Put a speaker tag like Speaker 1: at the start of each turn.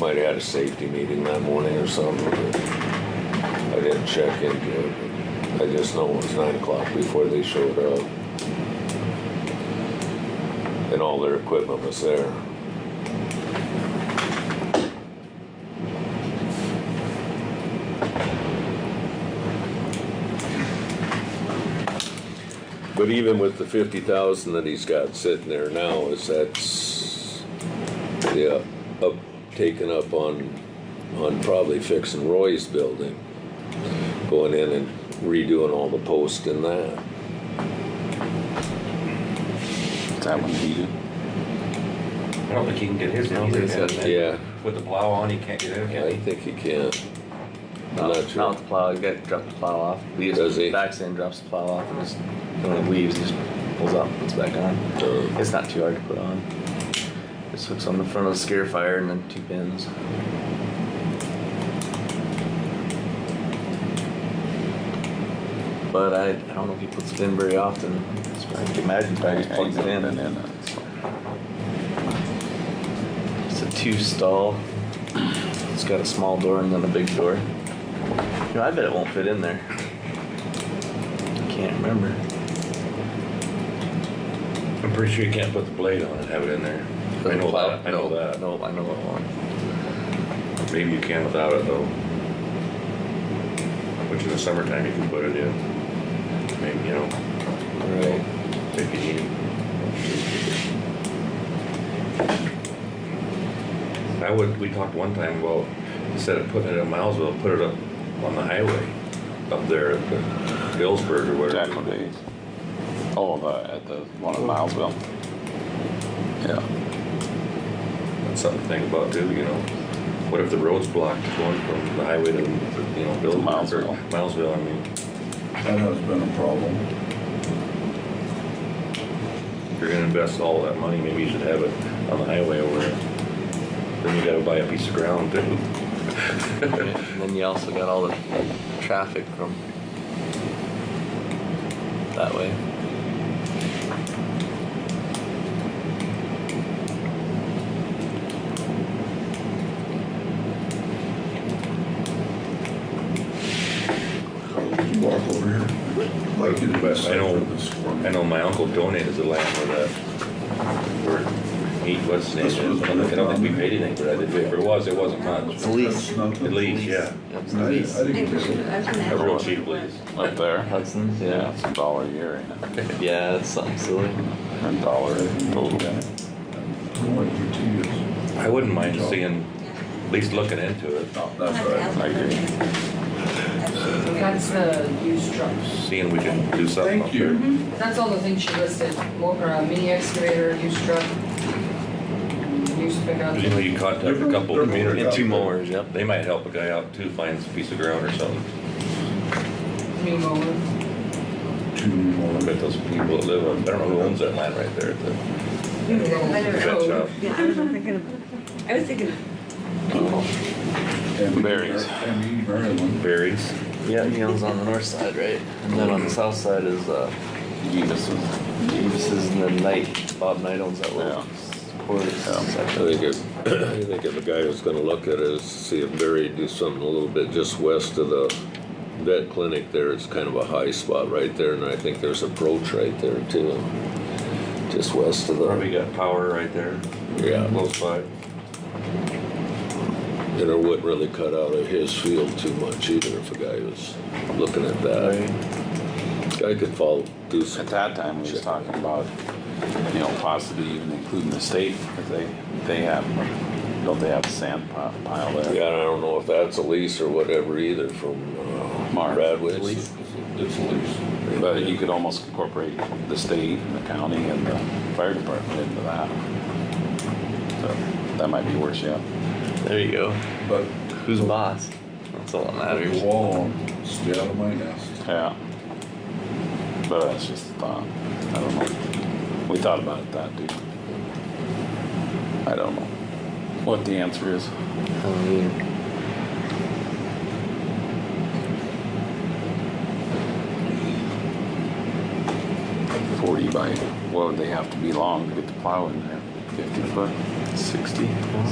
Speaker 1: might have had a safety meeting that morning or something. I didn't check into it. I just know it was nine o'clock before they showed up. And all their equipment was there. But even with the fifty thousand that he's got sitting there now, is that's, yeah, up, taken up on, on probably fixing Roy's building. Going in and redoing all the posts and that.
Speaker 2: Is that one heated?
Speaker 3: I don't think he can get his in either.
Speaker 4: think so.
Speaker 3: can he?
Speaker 1: Yeah,
Speaker 3: With the plow on, he can't get in, can
Speaker 1: I
Speaker 3: he?
Speaker 1: think he can. I'm
Speaker 2: No,
Speaker 1: not
Speaker 2: Not
Speaker 1: sure.
Speaker 2: with the plow, you got drop the plow off. He just
Speaker 1: Does he?
Speaker 2: backs in, drops the plow off, and just, when it leaves, he just pulls up, puts it back on.
Speaker 1: Uh,
Speaker 2: It's not too hard to put on. Just hooks on the front of the scare fire and then two pins. But I, I don't know if he puts it in very often. It's probably- I can imagine if I just plugs it in. It's a two stall. It's got a small door and then a big door. You know, I bet it won't fit in there. Can't remember.
Speaker 3: I'm pretty sure you can't put the blade on and have it in there. I know that, I know that.
Speaker 2: No, I know it won't.
Speaker 3: Maybe you can without it though. Which in the summertime you can put it in. Maybe, you know,
Speaker 2: Right.
Speaker 3: if you need it. I would, we talked one time about, instead of putting it in Milesville, put it up on the highway, up there at the Billsburg or
Speaker 4: Jackal
Speaker 3: whatever.
Speaker 4: Days. Oh, the, at the one in Milesville. Yeah.
Speaker 3: That's something to think about too, you know. What if the road's blocked going from the highway to, you know, Bill?
Speaker 4: Milesville.
Speaker 3: Milesville, I mean,
Speaker 5: That has been a problem.
Speaker 3: if you're gonna invest all that money, maybe you should have it on the highway over there. Then you gotta buy a piece of ground too.
Speaker 2: And then you also got all the traffic from that way.
Speaker 5: Would you walk over here? I'd Like you to
Speaker 3: But I know-
Speaker 5: for this for
Speaker 3: I
Speaker 5: me.
Speaker 3: know my uncle donated the land for that, for eight, what's his name?
Speaker 5: This was-
Speaker 3: I don't think we paid anything for that, did we? If it was, it wasn't much.
Speaker 5: That's
Speaker 3: At
Speaker 5: not the-
Speaker 3: least, yeah.
Speaker 5: I- I didn't get it.
Speaker 3: Everyone
Speaker 4: Everyone
Speaker 3: cheap, please.
Speaker 4: Up there?
Speaker 2: Hudson's,
Speaker 4: Yeah,
Speaker 2: yeah.
Speaker 4: it's a dollar a year, ain't it?
Speaker 2: Yeah, that's something silly.
Speaker 4: A dollar a total.
Speaker 5: Only for two years.
Speaker 3: I wouldn't mind seeing, at least looking into it,
Speaker 5: No, that's right.
Speaker 4: I agree.
Speaker 6: That's the used truck.
Speaker 3: seeing we can do something.
Speaker 5: Thank you.
Speaker 6: That's all the things she listed, mo- uh, mini excavator, used truck, used pickup.
Speaker 3: Cause you know, you contact a couple
Speaker 5: They're- they're-
Speaker 3: communities.
Speaker 2: And two mowers, yep.
Speaker 3: They might help a guy out too, finds a piece of ground or something.
Speaker 6: New mower.
Speaker 5: Two
Speaker 3: I
Speaker 5: more.
Speaker 3: bet those people that live on, I don't know who owns that land right there at the vet shop.
Speaker 7: Yeah, I was thinking of, I was thinking
Speaker 5: And-
Speaker 4: Berries.
Speaker 5: And Maryland.
Speaker 3: Berries.
Speaker 2: Yeah, Neil's on the north side, right? And then on the south side is uh,
Speaker 4: Jeebus was
Speaker 2: Davis's and then Knight. Bob Knight owns that little quarter
Speaker 1: I
Speaker 2: section.
Speaker 1: think if, I think if a guy was gonna look at it, is see if Barry do something a little bit just west of the vet clinic there, it's kind of a high spot right there, and I think there's approach right there too. Just west of the,
Speaker 3: Probably got power right there,
Speaker 1: yeah,
Speaker 3: close by.
Speaker 1: and it wouldn't really cut out of his field too much either if a guy was looking at that.
Speaker 2: Right.
Speaker 1: Guy could follow, do
Speaker 4: At
Speaker 1: some,
Speaker 4: that time, we was talking about, you know, possibly even including the state, because they, they have, don't they have a sand pi- pile there?
Speaker 1: yeah, I don't know if that's a lease or whatever either from, uh,
Speaker 4: Mark.
Speaker 1: Bradway.
Speaker 2: Lease.
Speaker 1: It's a lease.
Speaker 4: But you could almost incorporate the state and the county and the fire department into that. So that might be worse, yeah.
Speaker 2: There you go.
Speaker 5: But
Speaker 2: Who's boss? That's all that
Speaker 5: the
Speaker 2: matters.
Speaker 5: wall, stay out of my nest.
Speaker 4: Yeah. But that's just a thought. I don't know. We thought about it that, dude. I don't know what the answer is.
Speaker 2: Um,
Speaker 4: Forty by, what would they have to be long to get the plow in there? Fifty foot? Sixty?